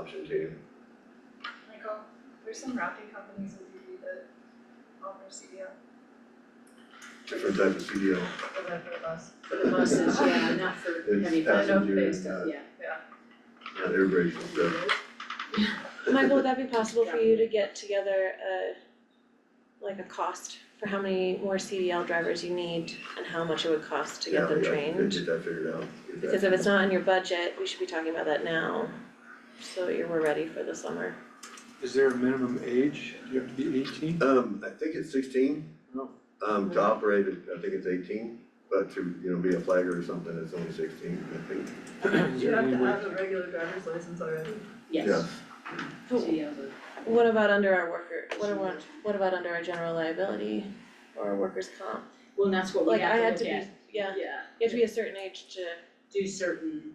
option too. Michael, there's some wrapping companies in DB that offer CDL Different type of CDL, for the, for the bus. For the buses, yeah, not for It's heavy I know, passenger, uh, they still- not, yeah. not everybody's stuff. Michael, would that be possible for you to get together a, like a cost for how many more CDL drivers you need and how much it would cost to Yeah, get them we got- trained? we Get that figured out. Get that- Because if it's not in your budget, we should be talking about that now, so that you're, we're ready for the summer. Is there a minimum age? Do you have to be eighteen? Um, I think it's sixteen. Oh. Um, to operate it, I think it's eighteen, but to, you know, be a flagger or something, it's only sixteen, I think. Is You there have any to way? have a regular driver's license already. Yeah. Yes, so Who- you have a- What about under our worker, what about, what about under our general liability or workers' comp? well, and that's what we Like, I have had to to look be, at, yeah, yeah, you have to be a certain age to, do certain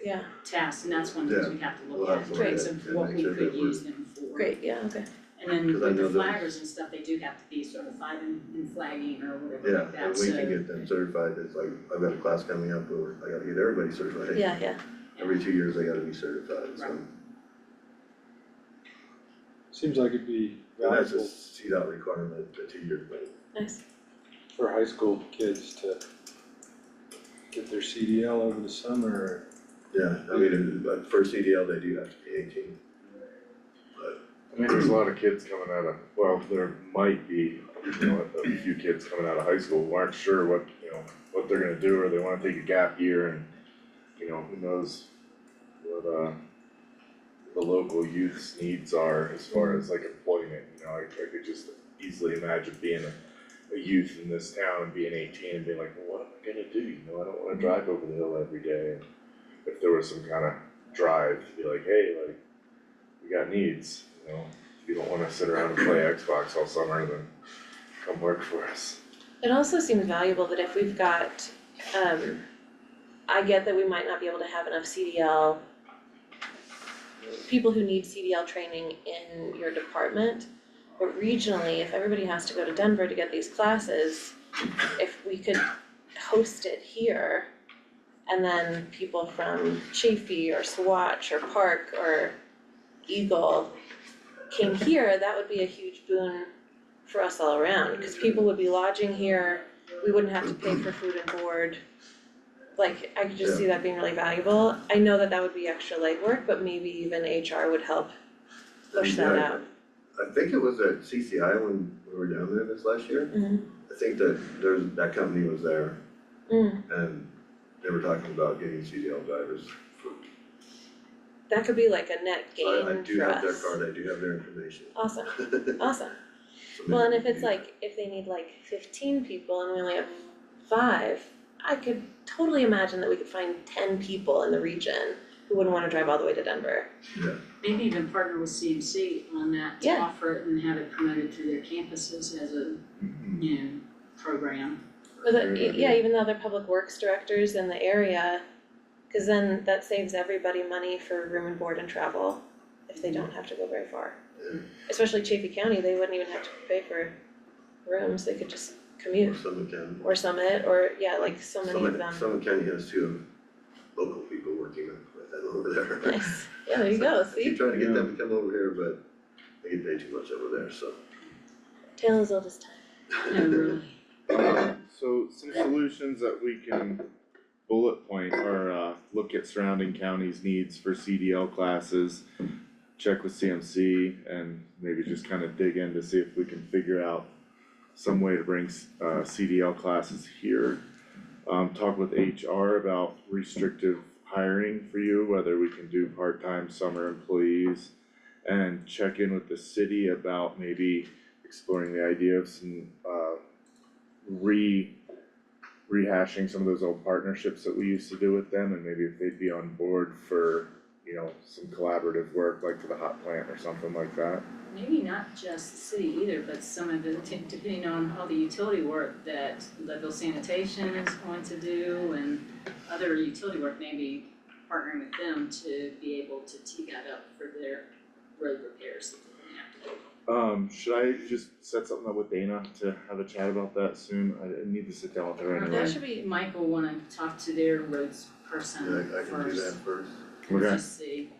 yeah, tasks, and that's one of the things we have to We'll look have at, in to look terms at of and what make we sure could that we're- use them for. great, yeah, okay. And then 'Cause I with know the that- flaggers and stuff, they do have to be certified in, in flagging or whatever Yeah, like and that, we so, can get them certified, it's like, I've got a class coming up, where I gotta get everybody certified. Yeah, yeah. Every two years, they gotta be certified, so, Right. and Seems like it'd be that's a valuable CDOT requirement, a two-year thing. Nice. for high school kids to get their CDL over the summer. Yeah, I mean, but for CDL, they do have to be eighteen. I mean, there's a lot of kids coming out of, well, there might be, you know, a few kids coming out of high school who aren't sure what, you know, what they're gonna do, or they wanna take a gap year and, you know, who knows what, uh, the local youth's needs are as far as like employment, you know, I, I could just easily imagine being a, a youth in this town and being eighteen and being like, well, what am I gonna do, you know, I don't wanna drive over the hill every day. And If there was some kind of drive to be like, hey, like, we got needs, you know, if you don't wanna sit around and play Xbox all summer, then come work for us. It also seems valuable that if we've got, um, I get that we might not be able to have enough CDL, people who need CDL training in your department, but regionally, if everybody has to go to Denver to get these classes, if we could host it here, and then people from Chafee or Swatch or Park or Eagle came here, that would be a huge boon for us all around, cause people would be lodging here, we wouldn't have to pay for food and board. Like, I could just see that being really valuable, I know that that would be extra legwork, but maybe even HR would help push that Yeah, out. I think it was at CCI when we were down there this last year, Mhm. I think that there's, that company was there Mm, and they were talking about getting CDL drivers. that could be like a net gain So for I, I do us. have their card, I do have their information. Awesome, So awesome, Uh, well, and if it's like, if they need like fifteen people and we only have five, I could totally imagine that we could find ten people in the region who wouldn't wanna drive all the way to Denver. maybe even partner with CMC on that to Yeah. offer it and have it promoted through their campuses as a, Mm-hmm. you know, program. Or Very the, good yeah, even the other public works directors in the area, cause then that saves everybody money for room and board and travel if they don't have to go very far. Mm-hmm. Yeah. Especially Chaffey County, they wouldn't even have to pay for rooms, they could just Or commute Summit County. or Summit or, yeah, like so many of Summit, them. Summit County has two local people working with them over there. Nice, yeah, there you go, I keep see, trying to get them to come over here, but they get paid too much over there, so. tale as old as time. No, really, So some solutions that we can bullet point are, uh, look at surrounding counties' needs for CDL classes, check with CMC and maybe just kind of dig in to see if we can figure out some way to bring, uh, CDL classes here. Um, talk with HR about restrictive hiring for you, whether we can do part-time summer employees. And check in with the city about maybe exploring the idea of some, uh, re rehashing some of those old partnerships that we used to do with them and maybe if they'd be on board for, you know, some collaborative work like for the hot plant or something like that. maybe not just the city either, but some of the, depending on all the utility work that Leadville Sanitation is going to do and other utility work, maybe partnering with them to be able to tee that up for their road repairs that they're gonna have to do. Um, should I just set something up with Dana to have a chat about that soon? I I need to sit down with her Okay. anyway. That should be, Michael wanna talk to their roads person Yeah, I I can do that first, first. Okay, just see,